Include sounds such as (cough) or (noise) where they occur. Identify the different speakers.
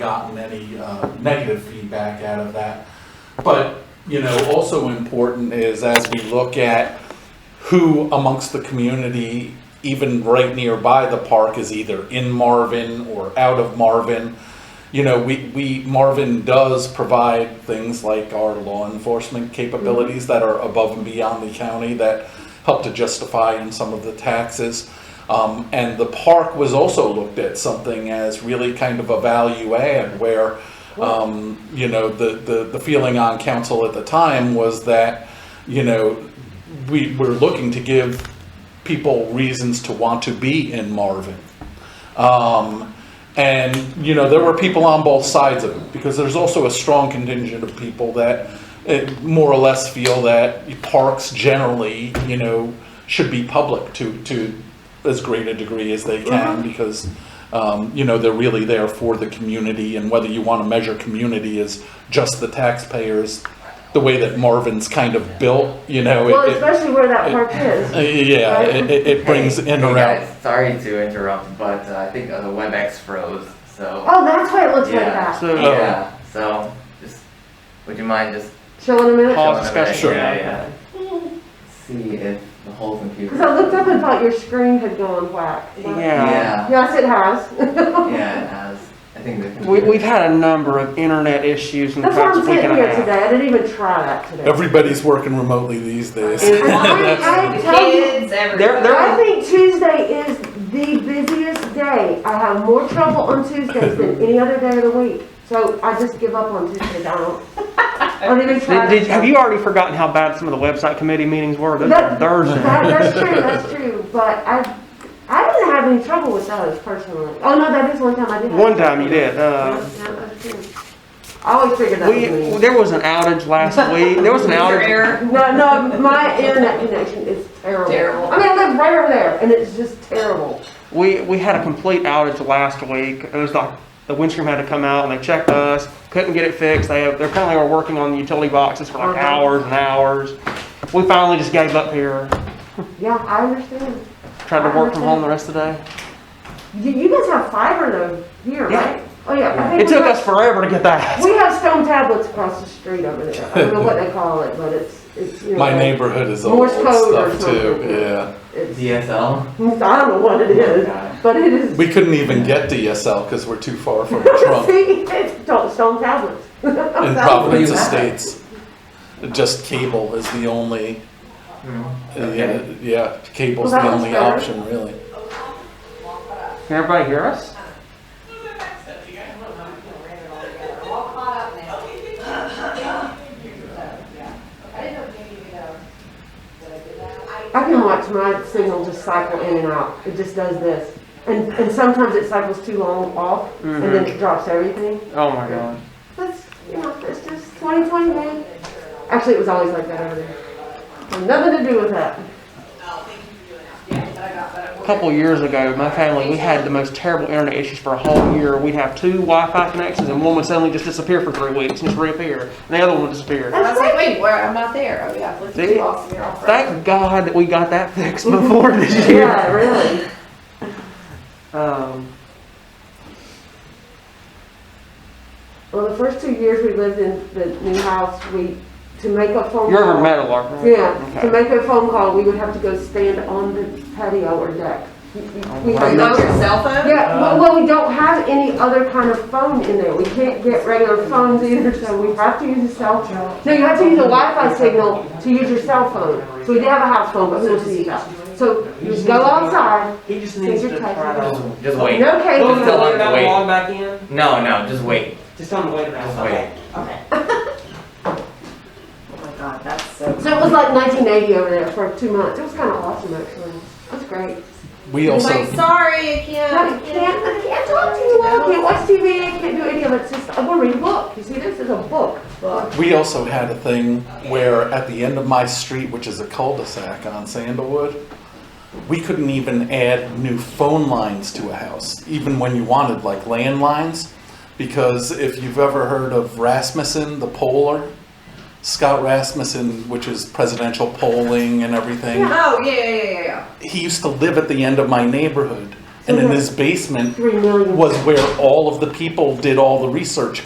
Speaker 1: gotten any uh, negative feedback out of that. But, you know, also important is as we look at who amongst the community, even right nearby the park, is either in Marvin or out of Marvin. You know, we, we, Marvin does provide things like our law enforcement capabilities that are above and beyond the county that help to justify in some of the taxes. Um, and the park was also looked at something as really kind of a value add where, um, you know, the, the, the feeling on council at the time was that, you know, we were looking to give people reasons to want to be in Marvin. Um, and, you know, there were people on both sides of it, because there's also a strong contingent of people that eh, more or less feel that parks generally, you know, should be public to, to as great a degree as they can, because, um, you know, they're really there for the community, and whether you want to measure community as just the taxpayers, the way that Marvin's kind of built, you know. it-
Speaker 2: Well,
Speaker 1: it-
Speaker 2: especially where that park
Speaker 1: uh,
Speaker 2: is.
Speaker 1: Yeah,
Speaker 2: Right?
Speaker 1: it, it- it brings
Speaker 3: Hey,
Speaker 1: in
Speaker 3: hey
Speaker 1: or out.
Speaker 3: guys, sorry to interrupt, but uh, I think uh, the WebEx froze, so.
Speaker 2: Oh, that's why it looks like
Speaker 3: yeah,
Speaker 2: that.
Speaker 1: Oh.
Speaker 4: So-
Speaker 3: Yeah, so, just, would you mind just
Speaker 2: Show in a minute.
Speaker 4: Pause
Speaker 3: showing them
Speaker 4: discussion.
Speaker 3: that? Yeah,
Speaker 4: Sure.
Speaker 3: yeah. See if the whole computer.
Speaker 2: Because I looked up and thought your screen had gone whack. but-
Speaker 4: Yeah.
Speaker 3: Yeah,
Speaker 2: Yes, it has.
Speaker 3: yeah, it has. I think the
Speaker 4: We,
Speaker 3: computer.
Speaker 4: we've had a number of internet issues in
Speaker 2: (laughs)
Speaker 4: the
Speaker 2: That's why
Speaker 4: past
Speaker 2: I'm
Speaker 4: week
Speaker 2: sitting
Speaker 4: and a
Speaker 2: here
Speaker 4: half.
Speaker 2: today. I didn't even try that today.
Speaker 1: Everybody's working remotely these days.
Speaker 4: Is-
Speaker 2: And (laughs)
Speaker 5: (laughs)
Speaker 2: I, I
Speaker 5: The
Speaker 2: tell you,
Speaker 5: kids, everything.
Speaker 4: They're- they're-
Speaker 2: I think Tuesday is the busiest day. I have more trouble on Tuesdays than any other day of the week. So I just give up on Tuesdays. I don't, I don't even try.
Speaker 4: Did, did-
Speaker 2: that
Speaker 4: have
Speaker 2: stuff.
Speaker 4: you already forgotten how bad some of the website committee meetings were? Those
Speaker 2: That-
Speaker 4: were Thursday.
Speaker 2: That, that's true, that's true, but I, I didn't have any trouble with those personally. Oh, no, that is one time I did. have
Speaker 4: One time
Speaker 2: trouble.
Speaker 4: you did.
Speaker 2: Yeah,
Speaker 4: Uh,
Speaker 2: yeah, that's true. I always figured that was
Speaker 4: we,
Speaker 2: me.
Speaker 4: there was an
Speaker 2: (laughs)
Speaker 4: outage last week. There was an
Speaker 5: Your
Speaker 4: outage.
Speaker 5: error.
Speaker 2: No, no, my internet connection is terrible.
Speaker 5: Terrible.
Speaker 2: I mean, I live right over there, and it's just terrible.
Speaker 4: We, we had a complete outage last week. It was like the windscreen had to come out and they checked us, couldn't get it fixed. They, they're currently are working on the utility boxes for like
Speaker 2: Uh-huh.
Speaker 4: hours and hours. We finally just gave up here,
Speaker 2: Yeah, I understand.
Speaker 4: tried to work from home the rest of the day.
Speaker 2: You, you guys have fiber though here,
Speaker 4: Yeah.
Speaker 2: right? Oh, yeah. I think
Speaker 4: It
Speaker 2: we
Speaker 4: took
Speaker 2: got-
Speaker 4: us forever to get that.
Speaker 2: We have stone tablets across the street over there. I don't know what they call it, but it's, it's, you know.
Speaker 1: My neighborhood is all old
Speaker 2: Morse code or
Speaker 1: stuff too,
Speaker 2: something.
Speaker 1: yeah.
Speaker 2: It's,
Speaker 3: DSL?
Speaker 2: I don't know what it is, but it is.
Speaker 1: We couldn't even get DSL because we're too far from Trump
Speaker 2: (laughs) See, it's don't stone tablets.
Speaker 1: in Providence Estates. Just cable is the only,
Speaker 3: Hmm,
Speaker 1: yeah,
Speaker 3: Okay.
Speaker 1: yeah, cable's
Speaker 2: Well,
Speaker 1: the
Speaker 2: that was
Speaker 1: only
Speaker 2: better.
Speaker 1: option really.
Speaker 4: Can everybody hear us?
Speaker 2: I can watch my signal just cycle in and out. It just does this. And, and sometimes it cycles too long off and then it drops everything.
Speaker 4: Oh my God.
Speaker 2: That's, you know, it's just 2020, man. Actually, it was always like that over there. Had Nothing to do with that.
Speaker 4: A couple years ago, my family, we had the most terrible internet issues for a whole year. We'd have two Wi-Fi connections and one would suddenly just disappear for three weeks and just reappear. And the other one would disappear.
Speaker 5: I was like, wait, where, I'm not there. Oh, yeah, let's
Speaker 4: See?
Speaker 5: get off here. I'll-
Speaker 4: Thank God that we got that fixed
Speaker 2: (laughs)
Speaker 4: before this year.
Speaker 2: Yeah, really.
Speaker 4: Um,
Speaker 2: Well, the first two years we lived in the new house, we, to make a phone call.
Speaker 4: you're over metal, aren't you?
Speaker 2: Yeah, to
Speaker 4: Okay.
Speaker 2: make a phone call, we would have to go stand on the patio or deck. We- we- we have no-
Speaker 5: Oh, your cell phone?
Speaker 2: Yeah, well, well, we don't have any other kind of phone in there, we can't get regular phones either, so we have to use a cell phone. No, you have to use a Wi-Fi signal to use your cell phone, so we did have a house phone, but we don't use that. So you just go outside,
Speaker 4: He just
Speaker 2: needs to try to-
Speaker 3: Just wait.
Speaker 2: no
Speaker 3: Well,
Speaker 2: cable,
Speaker 3: no. Tell him to wait.
Speaker 4: log back in?
Speaker 3: No, no, just wait.
Speaker 4: Just tell him to wait
Speaker 3: Just
Speaker 4: around.
Speaker 3: wait.
Speaker 5: Oh my god, that's so.
Speaker 2: so it was like nineteen eighty over there for two months, it was kinda awesome actually, that's great.
Speaker 1: We
Speaker 5: He's
Speaker 1: also,
Speaker 5: like, sorry, I
Speaker 2: No, I
Speaker 5: can't.
Speaker 2: can't, I can't talk to you, I can't watch TV, I can't do any of it, it's just, I'm gonna read a book, you see, this is a book.
Speaker 1: we also had a thing where at the end of my street, which is a cul-de-sac on Sandalwood, we couldn't even add new phone lines to a house, even when you wanted like landlines. Because if you've ever heard of Rasmussen, the poller, Scott Rasmussen, which is presidential polling and everything
Speaker 5: Oh, yeah, yeah, yeah, yeah.
Speaker 1: he used to live at the end of my neighborhood. And in his basement
Speaker 2: Three million.
Speaker 1: was where all of the people did all the research